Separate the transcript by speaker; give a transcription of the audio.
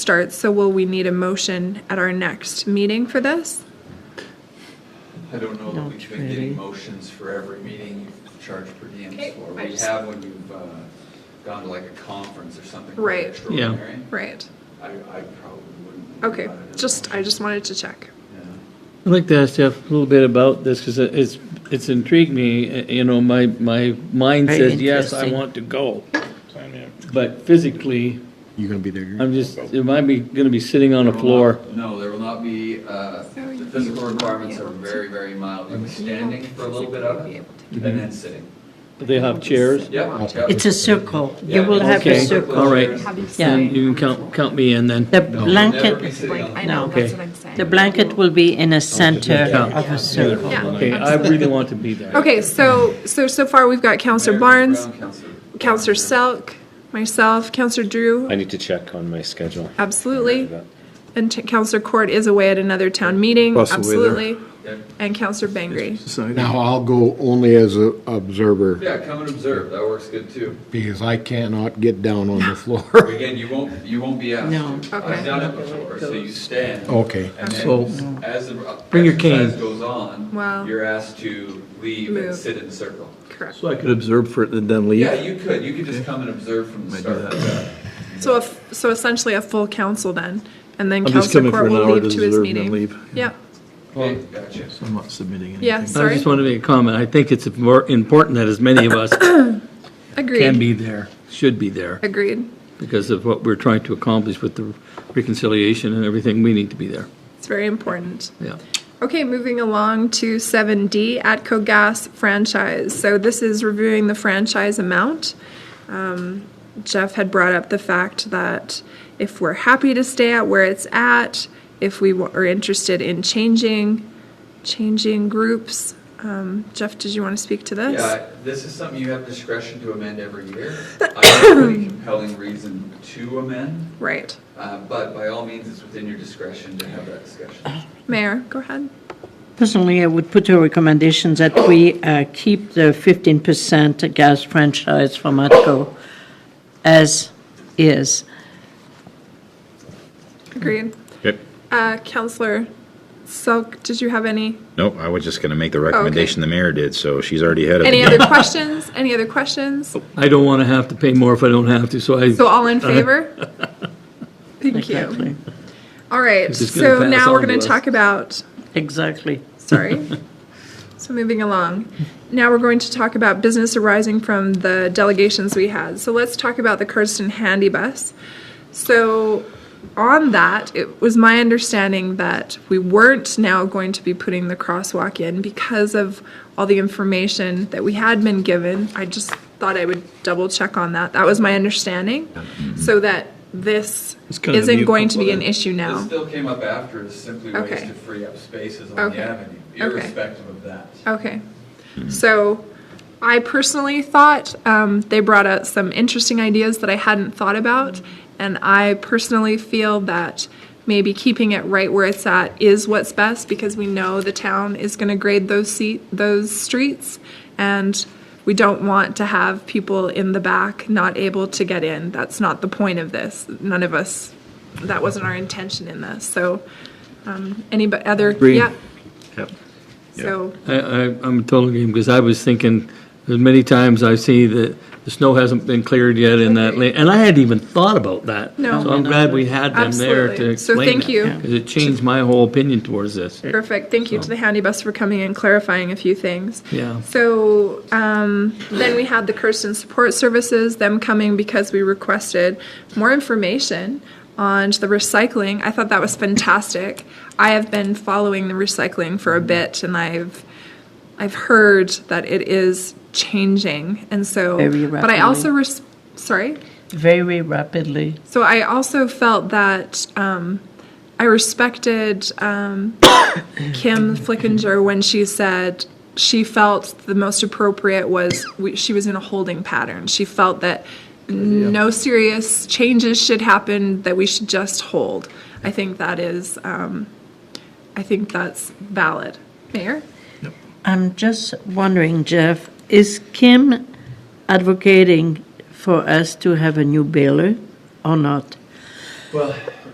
Speaker 1: starts, so will we need a motion at our next meeting for this?
Speaker 2: I don't know that
Speaker 3: Not
Speaker 2: we've been getting
Speaker 3: really.
Speaker 2: motions for every meeting you've charged per diem
Speaker 1: Okay,
Speaker 2: for.
Speaker 1: I
Speaker 2: We
Speaker 1: just-
Speaker 2: have when you've uh, gone to like a conference or something. quite
Speaker 1: Right. Yeah.
Speaker 2: Extraordinary.
Speaker 1: Right,
Speaker 2: I, I probably wouldn't.
Speaker 1: okay,
Speaker 2: think about it as
Speaker 1: just,
Speaker 2: a
Speaker 1: I just wanted to check.
Speaker 2: motion.
Speaker 4: I'd like to ask Jeff a little bit about this, because it's, it's intrigued me, uh, you know, my, my mind
Speaker 3: Very
Speaker 4: says, yes, I
Speaker 3: interesting.
Speaker 4: want to go. But physically,
Speaker 5: You gonna be there?
Speaker 4: I'm just, am I be, gonna be sitting on
Speaker 2: Yeah.
Speaker 4: a floor?
Speaker 2: No, there will not be, uh,
Speaker 1: So you
Speaker 2: the physical
Speaker 1: won't be
Speaker 2: requirements are
Speaker 1: able to-
Speaker 2: very, very mild. You'll be standing for a little bit of it
Speaker 4: Mm-hmm.
Speaker 2: and then sitting.
Speaker 4: Do they have chairs?
Speaker 2: Yep. yep.
Speaker 3: It's a circle. You
Speaker 2: Yeah,
Speaker 3: will
Speaker 2: it's
Speaker 3: have a
Speaker 4: Okay.
Speaker 3: circle.
Speaker 4: All right.
Speaker 3: Yeah.
Speaker 4: Then You can count, count me in then.
Speaker 3: The
Speaker 2: You'll never be
Speaker 3: blanket,
Speaker 2: sitting on the
Speaker 1: I
Speaker 2: floor.
Speaker 1: know,
Speaker 3: No.
Speaker 1: that's
Speaker 4: Okay.
Speaker 1: what I'm saying.
Speaker 3: the blanket will be in a center
Speaker 4: Yeah.
Speaker 3: of a circle.
Speaker 1: Yeah. Oh,
Speaker 4: Okay, I really want to be there.
Speaker 1: Okay, so, so, so far we've got Counselor
Speaker 2: Mayor
Speaker 1: Barnes,
Speaker 2: Brown, Counselor-
Speaker 1: Counselor Selk, myself, Counselor Drew,
Speaker 5: I need to check on my schedule.
Speaker 1: absolutely. And Ch- Counselor Court is away at another town meeting,
Speaker 6: Plus away there.
Speaker 1: absolutely.
Speaker 2: Yep.
Speaker 1: And Counselor Bangry.
Speaker 5: Now, I'll go only as a observer,
Speaker 2: Yeah, come and observe. That works good too.
Speaker 5: because I cannot get down on the floor.
Speaker 2: Again, you won't, you won't be asked.
Speaker 3: No.
Speaker 2: to. I've done it before, so you stand.
Speaker 5: Okay.
Speaker 2: And
Speaker 4: So-
Speaker 2: then, as the
Speaker 4: Bring your cane.
Speaker 2: exercise goes on.
Speaker 1: Wow.
Speaker 2: You're asked to leave and
Speaker 1: Move.
Speaker 2: sit in a circle.
Speaker 1: Correct.
Speaker 6: So I could observe for it and then leave?
Speaker 2: Yeah, you could, you could just come and observe from the
Speaker 6: Might do
Speaker 2: start.
Speaker 1: So, if, so essentially a full council then, and then
Speaker 6: I'm just
Speaker 1: Counselor
Speaker 6: coming for
Speaker 1: Court
Speaker 6: an
Speaker 1: will
Speaker 6: hour to
Speaker 1: leave to his
Speaker 6: observe and
Speaker 1: meeting.
Speaker 6: then leave.
Speaker 1: Yep,
Speaker 2: Okay, gotcha.
Speaker 6: So I'm not submitting anything.
Speaker 1: Yeah,
Speaker 4: I
Speaker 1: sorry.
Speaker 4: just want to make a comment. I think it's more important that as many of us can
Speaker 1: agreed,
Speaker 4: be there, should be there,
Speaker 1: agreed.
Speaker 4: because of what we're trying to accomplish with the reconciliation and everything, we need to be there,
Speaker 1: It's very important.
Speaker 4: yeah.
Speaker 1: Okay, moving along to seven D, ATCO Gas franchise. So this is reviewing the franchise amount. Um, Jeff had brought up the fact that if we're happy to stay at where it's at, if we wa- are interested in changing, changing groups. Um, Jeff, did you want to speak to this?
Speaker 2: Yeah, this is something you have discretion to amend every year. I have a pretty compelling reason to amend,
Speaker 1: Right.
Speaker 2: uh, but by all means, it's within your discretion to have that discussion.
Speaker 1: Mayor, go ahead.
Speaker 3: Personally, I would put a recommendation that we uh, keep the 15% gas franchise for Matco as is.
Speaker 1: Agreed.
Speaker 7: Yep.
Speaker 1: Uh, Counselor Selk, did you have any,
Speaker 7: Nope, I was just going to make the
Speaker 5: Oh,
Speaker 7: recommendation the mayor did, so she's already ahead of the
Speaker 1: any
Speaker 7: game.
Speaker 1: other questions? Any other questions?
Speaker 4: I don't want to have to pay more if I don't have to, so I.
Speaker 1: So all in favor? Thank you.
Speaker 3: Exactly.
Speaker 1: All right,
Speaker 4: It's just gonna
Speaker 1: so
Speaker 4: pass
Speaker 1: now we're
Speaker 4: on to
Speaker 1: going to
Speaker 4: us.
Speaker 1: talk about,
Speaker 3: Exactly.
Speaker 1: sorry. So moving along. Now we're going to talk about business arising from the delegations we had. So let's talk about the Kirsten Handy Bus. So on that, it was my understanding that we weren't now going to be putting the crosswalk in because of all the information that we had been given. I just thought I would double check on that. That was my understanding. So that this
Speaker 6: It's kind of a
Speaker 1: isn't
Speaker 6: mute
Speaker 1: going to be an
Speaker 6: component.
Speaker 1: issue
Speaker 2: This
Speaker 1: now.
Speaker 2: still came up after, it's simply ways
Speaker 1: Okay.
Speaker 2: to free up spaces on
Speaker 1: Okay.
Speaker 2: the avenue,
Speaker 1: Okay.
Speaker 2: irrespective of that.
Speaker 1: Okay. So I personally thought um, they brought out some interesting ideas that I hadn't thought about. And I personally feel that maybe keeping it right where it's at is what's best because we know the town is going to grade those seat those streets and we don't want to have people in the back not able to get in. That's not the point of this. None of us that wasn't our intention in this. So um any but other
Speaker 4: Agreed.
Speaker 1: yeah.
Speaker 4: Yep.
Speaker 1: So
Speaker 4: I, I, I'm a total game, because I was thinking, as many times I see that the snow hasn't been cleared yet in that lane, and I hadn't even thought about that.
Speaker 1: No.
Speaker 4: So I'm glad we had them there to
Speaker 1: Absolutely. So
Speaker 4: explain
Speaker 1: thank you. Yeah.
Speaker 4: Because it changed my whole opinion towards this.
Speaker 1: Perfect. Thank you to the handy bus for coming and clarifying a few things.
Speaker 4: Yeah.
Speaker 1: So um, then we had the Kirsten Support Services, them coming because we requested more information on the recycling. I thought that was fantastic. I have been following the recycling for a bit, and I've I've heard that it is changing, and so.
Speaker 3: Very
Speaker 1: but I also
Speaker 3: rapidly.
Speaker 1: res- sorry.
Speaker 3: Very rapidly.
Speaker 1: So I also felt that um, I respected um, Kim Flickinger when she said she felt the most appropriate was we, she was in a holding pattern. She felt that no serious changes should happen, that we should just hold. I think that is, um, I think that's valid. Mayor?
Speaker 3: I'm just wondering, Jeff, is Kim advocating for us to have a new baler or not?
Speaker 2: Well,